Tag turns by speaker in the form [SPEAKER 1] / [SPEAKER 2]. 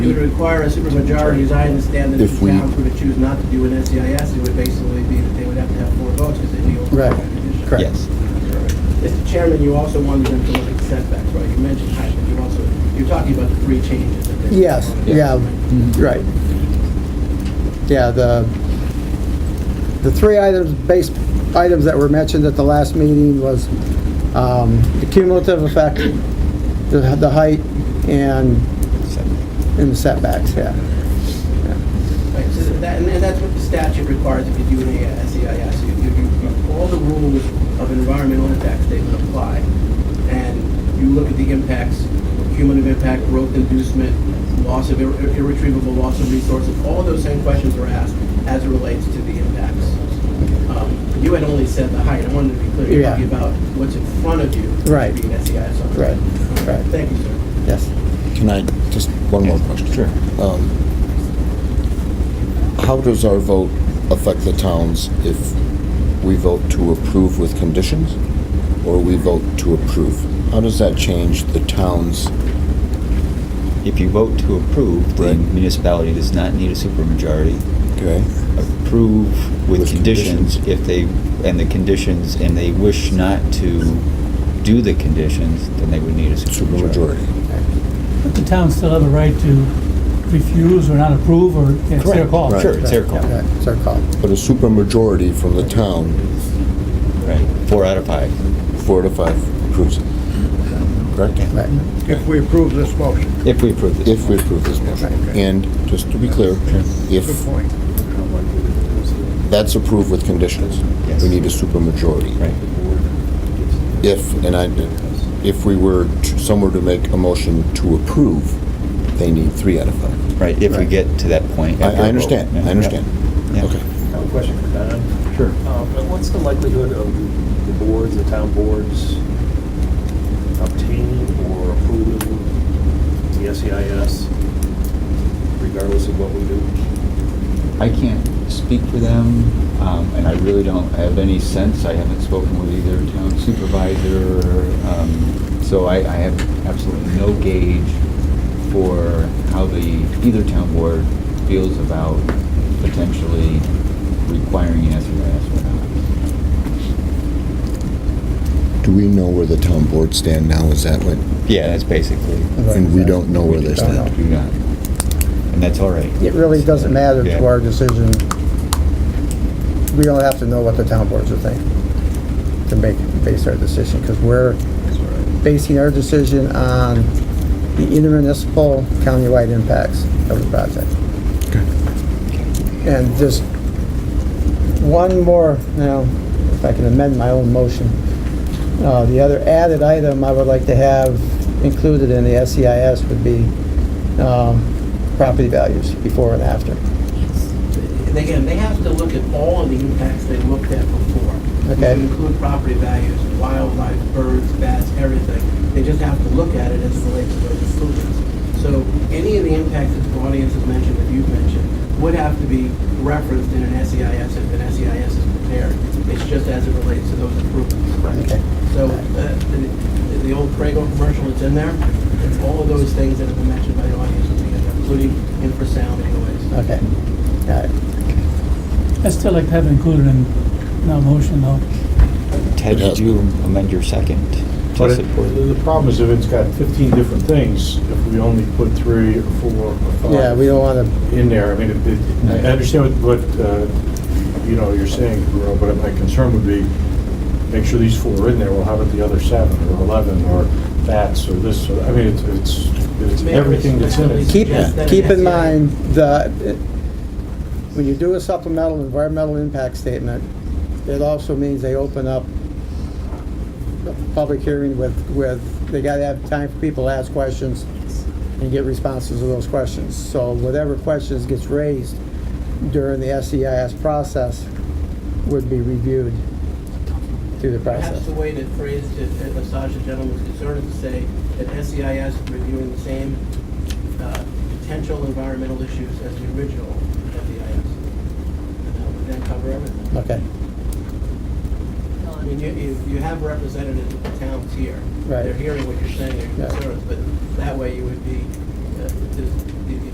[SPEAKER 1] require a supermajority, as I understand it, if
[SPEAKER 2] If
[SPEAKER 1] the
[SPEAKER 2] we-
[SPEAKER 1] towns were to choose not to do an SEIS, it would basically be that they would have to have four votes because they'd be over.
[SPEAKER 3] Right, correct.
[SPEAKER 2] Yes.
[SPEAKER 1] Mr. Chairman, you also wanted them to look at setbacks, right? You mentioned height, but you also, you're talking about the three changes. that they-
[SPEAKER 3] Yes, yeah, right. Yeah, the, the three items, base items that were mentioned at the last meeting was um, the cumulative effect, the, the height, and, and the setbacks, yeah.
[SPEAKER 1] Right, so that, and and that's what the statute requires if you do an A- SEIS. You- you- you- All the rules of environmental impact statement apply, and you look at the impacts, cumulative impact, growth inducement, loss of, irre- irretrievable loss of resources, all of those same questions are asked as it relates to the impacts. Um, You had only said the height, I wanted to be clear, you're
[SPEAKER 3] Yeah.
[SPEAKER 1] talking about what's in front of you.
[SPEAKER 3] Right.
[SPEAKER 1] Being SEIS. E on it.
[SPEAKER 3] Right, right.
[SPEAKER 1] Thank you, sir.
[SPEAKER 3] Yes.
[SPEAKER 2] Can I, just one more question? Sure. How does our vote affect the towns if we vote to approve with conditions or we vote to approve? How does that change the town's,
[SPEAKER 4] If you vote to approve, the
[SPEAKER 2] Right.
[SPEAKER 4] municipality does not need a supermajority.
[SPEAKER 2] okay?
[SPEAKER 4] Approve with
[SPEAKER 2] With
[SPEAKER 4] conditions
[SPEAKER 2] conditions.
[SPEAKER 4] if they, and the conditions, and they wish not to do the conditions, then they would need a supermajority.
[SPEAKER 2] Supermajority.
[SPEAKER 5] But the town still have a right to refuse or not approve, or it's their
[SPEAKER 4] Correct.
[SPEAKER 5] call.
[SPEAKER 2] Right.
[SPEAKER 4] Sure, it's their call.
[SPEAKER 3] Yeah, It's our call.
[SPEAKER 2] But a supermajority from the town,
[SPEAKER 4] Right, four out of five.
[SPEAKER 2] four to five, approves it. Correct?
[SPEAKER 3] Right.
[SPEAKER 6] If we approve this motion.
[SPEAKER 4] If we approve this.
[SPEAKER 2] If we approve this motion. And, just to be clear,
[SPEAKER 6] Good
[SPEAKER 2] if
[SPEAKER 6] point.
[SPEAKER 2] that's approved with conditions,
[SPEAKER 4] Yes.
[SPEAKER 2] we need a supermajority.
[SPEAKER 4] Right.
[SPEAKER 2] If, and I, if we were, to- somewhere to make a motion to approve, they need three out of five.
[SPEAKER 4] Right, if we
[SPEAKER 2] Right.
[SPEAKER 4] get to that point.
[SPEAKER 2] I,
[SPEAKER 4] after a
[SPEAKER 2] I
[SPEAKER 4] vote.
[SPEAKER 2] understand,
[SPEAKER 4] Yeah.
[SPEAKER 2] I understand.
[SPEAKER 4] Yeah.
[SPEAKER 2] Okay.
[SPEAKER 7] I have a question for Don.
[SPEAKER 4] Sure.
[SPEAKER 7] Um, What's the likelihood of the boards, the town boards obtaining or approving the SEIS regardless of what we do?
[SPEAKER 4] I can't speak for them, um, and I really don't have any sense. I haven't spoken with either town supervisor, um, so I, I have absolutely no gauge for how the, either town board feels about potentially requiring an SRS or not.
[SPEAKER 2] Do we know where the town board stand now? Is that what,
[SPEAKER 4] Yeah, that's basically.
[SPEAKER 2] and we don't know where they stand?
[SPEAKER 4] Do not. And that's all right.
[SPEAKER 3] It really doesn't matter
[SPEAKER 4] Yeah.
[SPEAKER 3] to our decision. We don't have to know what the town boards are thinking to make, base our decision, because we're basing our decision on the intermunicipal countywide impacts of the project. And just one more, now, if I can amend my own motion. Uh, The other added item I would like to have included in the SEIS would be um, property values before and after.
[SPEAKER 1] And again, they have to look at all of the impacts they looked at before.
[SPEAKER 3] Okay.
[SPEAKER 1] Which include property values, wildlife, birds, bats, everything. They just have to look at it as it relates to those improvements. So any of the impacts that the audience has mentioned, that you've mentioned, would have to be referenced in an SEIS if an SEIS is prepared. It's just as it relates to those improvements.
[SPEAKER 3] Okay.
[SPEAKER 1] So uh, the the old Prego commercial that's in there, it's all of those things that have been mentioned by the audience, will be in there, including infrasound anyways.
[SPEAKER 3] Okay. All right.
[SPEAKER 5] I still like to have it included in my motion, though.
[SPEAKER 4] Ted,
[SPEAKER 2] It has-
[SPEAKER 4] did you amend your second? to
[SPEAKER 8] But it-
[SPEAKER 4] support?
[SPEAKER 8] the problem is if it's got 15 different things, if we only put three or four or five.
[SPEAKER 3] Yeah, we don't want to,
[SPEAKER 8] in there. I mean, it- it- I understand what, what, uh, you know, you're saying, Guerrero, but my concern would be, make sure these four are in there, well, how about the other seven, or 11, or bats, or this, or, I mean, it's- it's, it's
[SPEAKER 1] May I
[SPEAKER 8] everything that's in it.
[SPEAKER 3] keep,
[SPEAKER 1] Yes, that
[SPEAKER 3] keep
[SPEAKER 1] is-
[SPEAKER 3] in mind the, when you do a supplemental environmental impact statement, it also means they open up a public hearing with, with, they got to have time for people to ask questions and get responses to those questions. So whatever questions gets raised during the SEIS process would be reviewed through the
[SPEAKER 1] Perhaps
[SPEAKER 3] process.
[SPEAKER 1] the way to phrase to to massage the gentleman's concern is to say that SEIS is reviewing the same uh, potential environmental issues as the original SEIS. And that would then cover everything.
[SPEAKER 3] Okay,
[SPEAKER 1] I mean, you, you you have representatives of the towns here.
[SPEAKER 3] Right.
[SPEAKER 1] They're hearing what you're saying, your
[SPEAKER 3] Yeah.
[SPEAKER 1] concerns, but that way you would be, uh, there's